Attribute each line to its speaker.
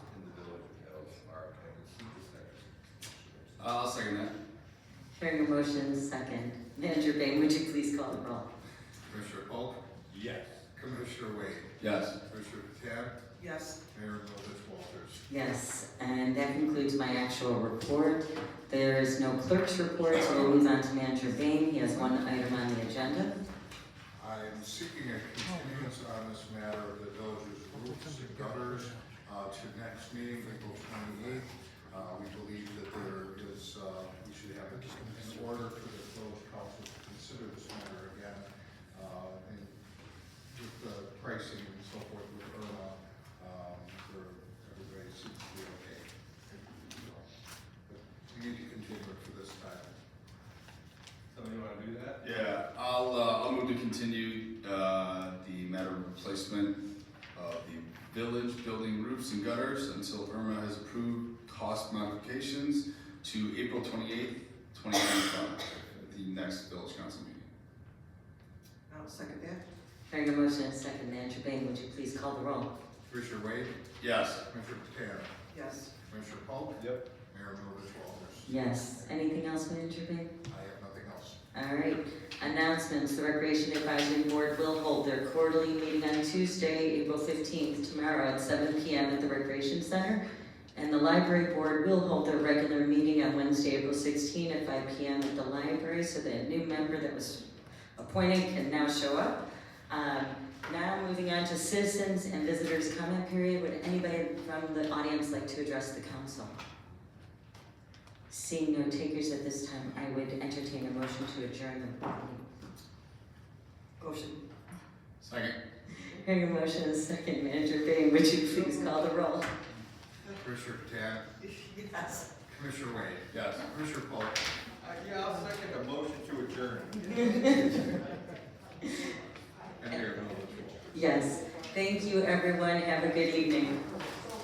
Speaker 1: Uh, I'll second that.
Speaker 2: Hearing a motion, second. Manager Bang, would you please call the roll?
Speaker 3: Commissioner Polk,
Speaker 4: Yes.
Speaker 3: Commissioner Wade,
Speaker 1: Yes.
Speaker 3: Commissioner Patan,
Speaker 5: yes,
Speaker 3: Mayor Milovich Walters.
Speaker 2: Yes, and that concludes my actual report. There is no clerk's report, so we'll move on to Manager Bang. He has one item on the agenda.
Speaker 3: I am seeking a continuance on this matter of the village's roofs and gutters uh, to next meeting, April twenty-eighth. Uh, We believe that there is, uh, we should have it in order for the village council to consider this matter again. uh, And with the pricing and so forth with Irma, um, for everybody seems to be okay. So, but We need to continue it for this time.
Speaker 4: Somebody wanna do that?
Speaker 1: Yeah, I'll, uh, I'll move to continue, uh, the matter of replacement of the village building roofs and gutters until Irma has approved cost modifications to April twenty-eighth, twenty twenty-five, the next village council meeting.
Speaker 5: I'll second that,
Speaker 2: Hearing a motion, second. Manager Bang, would you please call the roll?
Speaker 3: Commissioner Wade,
Speaker 1: Yes.
Speaker 3: Commissioner Patan,
Speaker 5: yes.
Speaker 3: Commissioner Polk,
Speaker 4: Yep.
Speaker 3: Mayor Milovich Walters.
Speaker 2: Yes. Anything else, Manager Bang?
Speaker 3: I have nothing else.
Speaker 2: All right, announcements, the Recreation Advisory Board will hold their quarterly meeting on Tuesday, April fifteenth, tomorrow at seven P M at the Recreation Center. And the Library Board will hold their regular meeting on Wednesday, April sixteenth, at five P M at the library, so that a new member that was appointed can now show up. Um, now moving on to citizens and visitors comment period, would anybody from the audience like to address the council? Seeing no takers at this time, I would entertain a motion to adjourn the meeting.
Speaker 5: Motion,
Speaker 1: Second.
Speaker 2: Hearing a motion and a second, Manager Bang, would you please call the roll?
Speaker 3: Commissioner Patan,
Speaker 5: yes.
Speaker 3: Commissioner Wade,
Speaker 1: Yes.
Speaker 3: Commissioner Polk,
Speaker 4: Uh, yeah, I'll second the motion to adjourn.
Speaker 3: and Mayor Milovich Walters.
Speaker 2: Yes, thank you, everyone, have a good evening.